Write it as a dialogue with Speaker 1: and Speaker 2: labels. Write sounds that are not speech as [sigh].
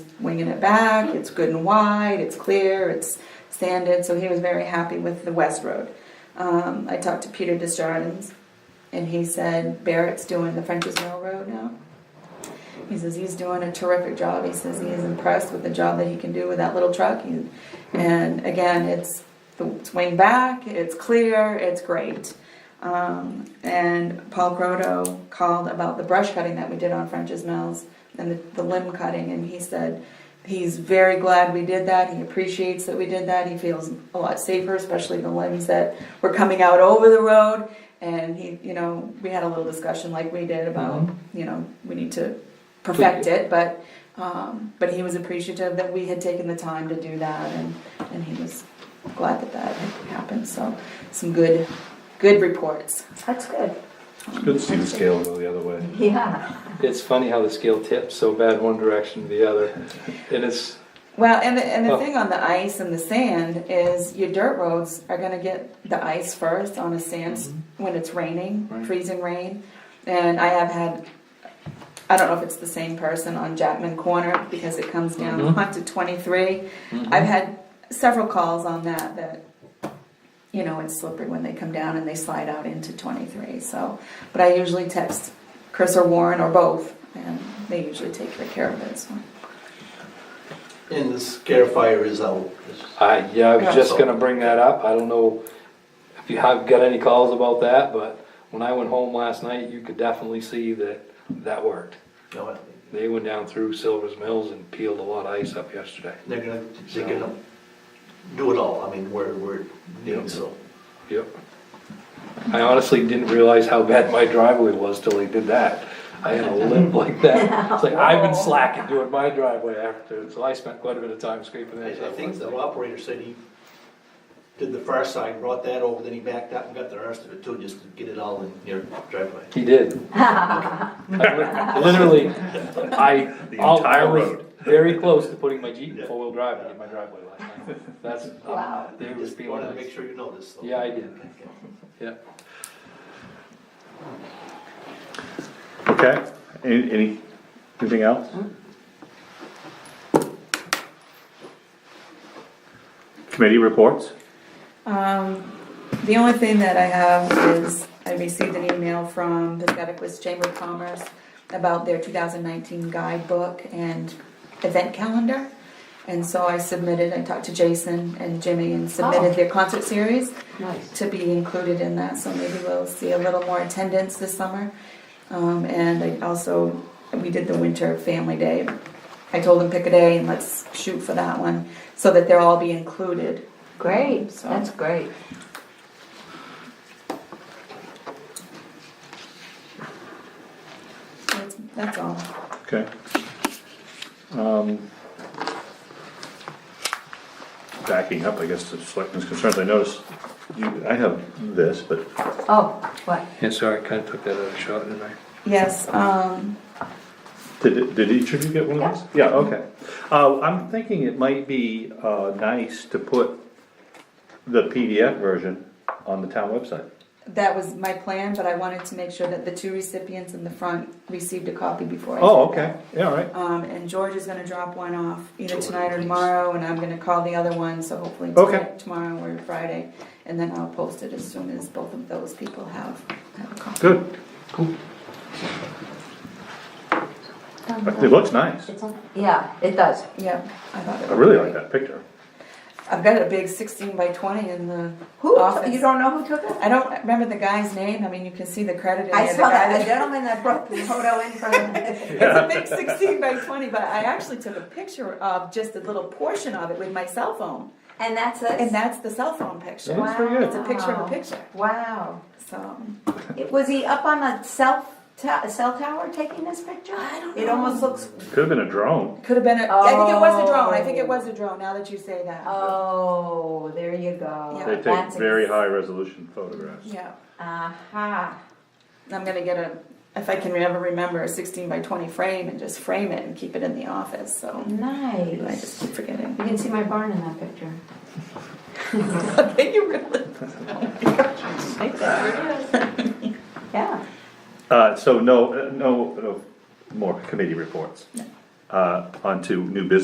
Speaker 1: winging it back. It's good and wide. It's clear. It's sanded. So he was very happy with the West Road. Um, I talked to Peter Desjardins, and he said Barrett's doing the French's Mill Road now. He says he's doing a terrific job. He says he is impressed with the job that he can do with that little truck. He, and again, it's the it's wing back, it's clear, it's great. Um, and Paul Grotto called about the brush cutting that we did on French's Mills and the, the limb cutting, and he said he's very glad we did that. He appreciates that we did that. He feels a lot safer, especially the limbs that were coming out over the road. And he, you know, we had a little discussion like we did about, you know, we need to perfect it, but um, but he was appreciative that we had taken the time to do that, and and he was glad that that happened. So some good good reports.
Speaker 2: That's good.
Speaker 3: Good to see the scale go the other way.
Speaker 2: Yeah.
Speaker 4: It's funny how the scale tips so bad one direction to the other. And it's,
Speaker 1: Well, and the, and the
Speaker 4: Oh.
Speaker 1: thing on the ice and the sand is your dirt roads are going to get the ice first on a sand s when it's raining,
Speaker 4: Mm-hmm. Right.
Speaker 1: freezing rain. And I have had, I don't know if it's the same person on Jackman Corner because it comes down [laughs]
Speaker 4: Mhm.
Speaker 1: onto 23. I've had several calls on that that, you know, it's slippery when they come down and they slide out into 23. So, but I usually text Chris or Warren or both, and they usually take good care of it. So.
Speaker 5: And the scare fire is out.
Speaker 4: I, yeah, I was just
Speaker 5: Yeah.
Speaker 4: gonna bring that up. I don't know if you have got any calls about that, but when I went home last night, you could definitely see that that worked.
Speaker 5: No,
Speaker 4: They went down through Silver's Mills and peeled a lot of ice up yesterday.
Speaker 5: They're gonna, they're gonna do it all, I mean, where, where
Speaker 4: Yeah.
Speaker 5: needed, so.
Speaker 4: Yep. I honestly didn't realize how bad my driveway was till they did that. I had a limp like that. It's like, I've been slacking doing my driveway after, so I spent quite a bit of time scraping
Speaker 5: I
Speaker 4: that.
Speaker 5: I
Speaker 4: stuff
Speaker 5: think
Speaker 4: last
Speaker 5: the
Speaker 4: night.
Speaker 5: operator said he did the far side, brought that over, then he backed up and got the rest of it too, just to get it all in your driveway.
Speaker 4: He did. I li- Literally, I.
Speaker 3: The
Speaker 4: I'll- I
Speaker 3: entire
Speaker 4: was
Speaker 3: road.
Speaker 4: Very close to putting my Jeep in
Speaker 5: Yeah.
Speaker 4: four-wheel drive in my driveway last night. That's,
Speaker 2: Wow.
Speaker 4: um, they was
Speaker 5: Just
Speaker 4: being
Speaker 5: wanted to
Speaker 4: nice.
Speaker 5: make sure you know this, so.
Speaker 4: Yeah, I did,
Speaker 5: Okay.
Speaker 4: yeah.
Speaker 3: Okay, any, any- anything else? Committee reports?
Speaker 1: Um, the only thing that I have is I received an email from the Scotticoke Chamber of Commerce about their 2019 guidebook and event calendar. And so I submitted, I talked to Jason and Jimmy and submitted
Speaker 2: Oh.
Speaker 1: their concert series
Speaker 2: Nice.
Speaker 1: to be included in that, so maybe we'll see a little more attendance this summer. Um, and I also, we did the winter family day. I told them pick a day and let's shoot for that one, so that they'll all be included.
Speaker 2: Great.
Speaker 1: So-
Speaker 2: That's great.
Speaker 1: That's, that's all.
Speaker 3: Okay. Um, Backing up, I guess, to selectmen's concerns, I noticed, you, I have this, but
Speaker 2: Oh, what?
Speaker 4: Yeah, sorry, I kinda took that out of shot, didn't I?
Speaker 1: Yes, um,
Speaker 3: Did, did each of you get one of those? Yeah, okay. Uh, I'm thinking it might be, uh, nice to put the PDF version on the town website.
Speaker 1: that was my plan, but I wanted to make sure that the two recipients in the front received a copy before I.
Speaker 3: Oh, okay, yeah, all right.
Speaker 1: Um, and George is gonna drop one off either
Speaker 5: George,
Speaker 1: tonight or
Speaker 5: please.
Speaker 1: tomorrow, and I'm gonna call the other one, so hopefully
Speaker 3: Okay.
Speaker 1: tonight, tomorrow or Friday. And then I'll post it as soon as both of those people have, have a copy.
Speaker 3: Good. It looks nice.
Speaker 2: Yeah, it does.
Speaker 1: Yeah, I thought it
Speaker 3: I
Speaker 1: would
Speaker 3: really
Speaker 1: be
Speaker 3: like
Speaker 1: great.
Speaker 3: that picture.
Speaker 1: I've got a big sixteen by twenty in the
Speaker 2: Who?
Speaker 1: office.
Speaker 2: You don't know who took it?
Speaker 1: I don't remember the guy's name, I mean, you can see the credit. in
Speaker 2: I
Speaker 1: there, the
Speaker 2: saw
Speaker 1: guy
Speaker 2: that, the [laughs] gentleman that brought the photo in from the. [laughs]
Speaker 1: It's a big 16 by 20, but I actually took a picture of just a little portion of it with my cell phone.
Speaker 2: And that's
Speaker 1: And
Speaker 2: it?
Speaker 1: that's the cell phone picture.
Speaker 3: That's pretty good.
Speaker 1: It's a picture of a picture.
Speaker 2: Wow.
Speaker 1: So,
Speaker 2: It- Was he up on a cell, ta- cell tower taking this picture? I don't It almost looks,
Speaker 3: Could have been a drone.
Speaker 1: could have been a, I think it was a drone. I think it was a drone now that you say that.
Speaker 2: oh, there you go.
Speaker 1: Yeah.
Speaker 3: They take
Speaker 2: That's
Speaker 3: very
Speaker 2: ex-
Speaker 3: high resolution photographs.
Speaker 1: Yeah.
Speaker 2: Aha.
Speaker 1: I'm going to get a, if I can ever remember, a 16 by 20 frame and just frame it and keep it in the office. So,
Speaker 2: Mm-hmm.
Speaker 1: I just
Speaker 2: Nice.
Speaker 1: keep forgetting. [laughs]
Speaker 2: You can see my barn in that picture.
Speaker 1: Okay, you really.
Speaker 2: [laughs] Yeah.
Speaker 3: Uh, so no, uh, no, no more committee reports. Uh, on to new business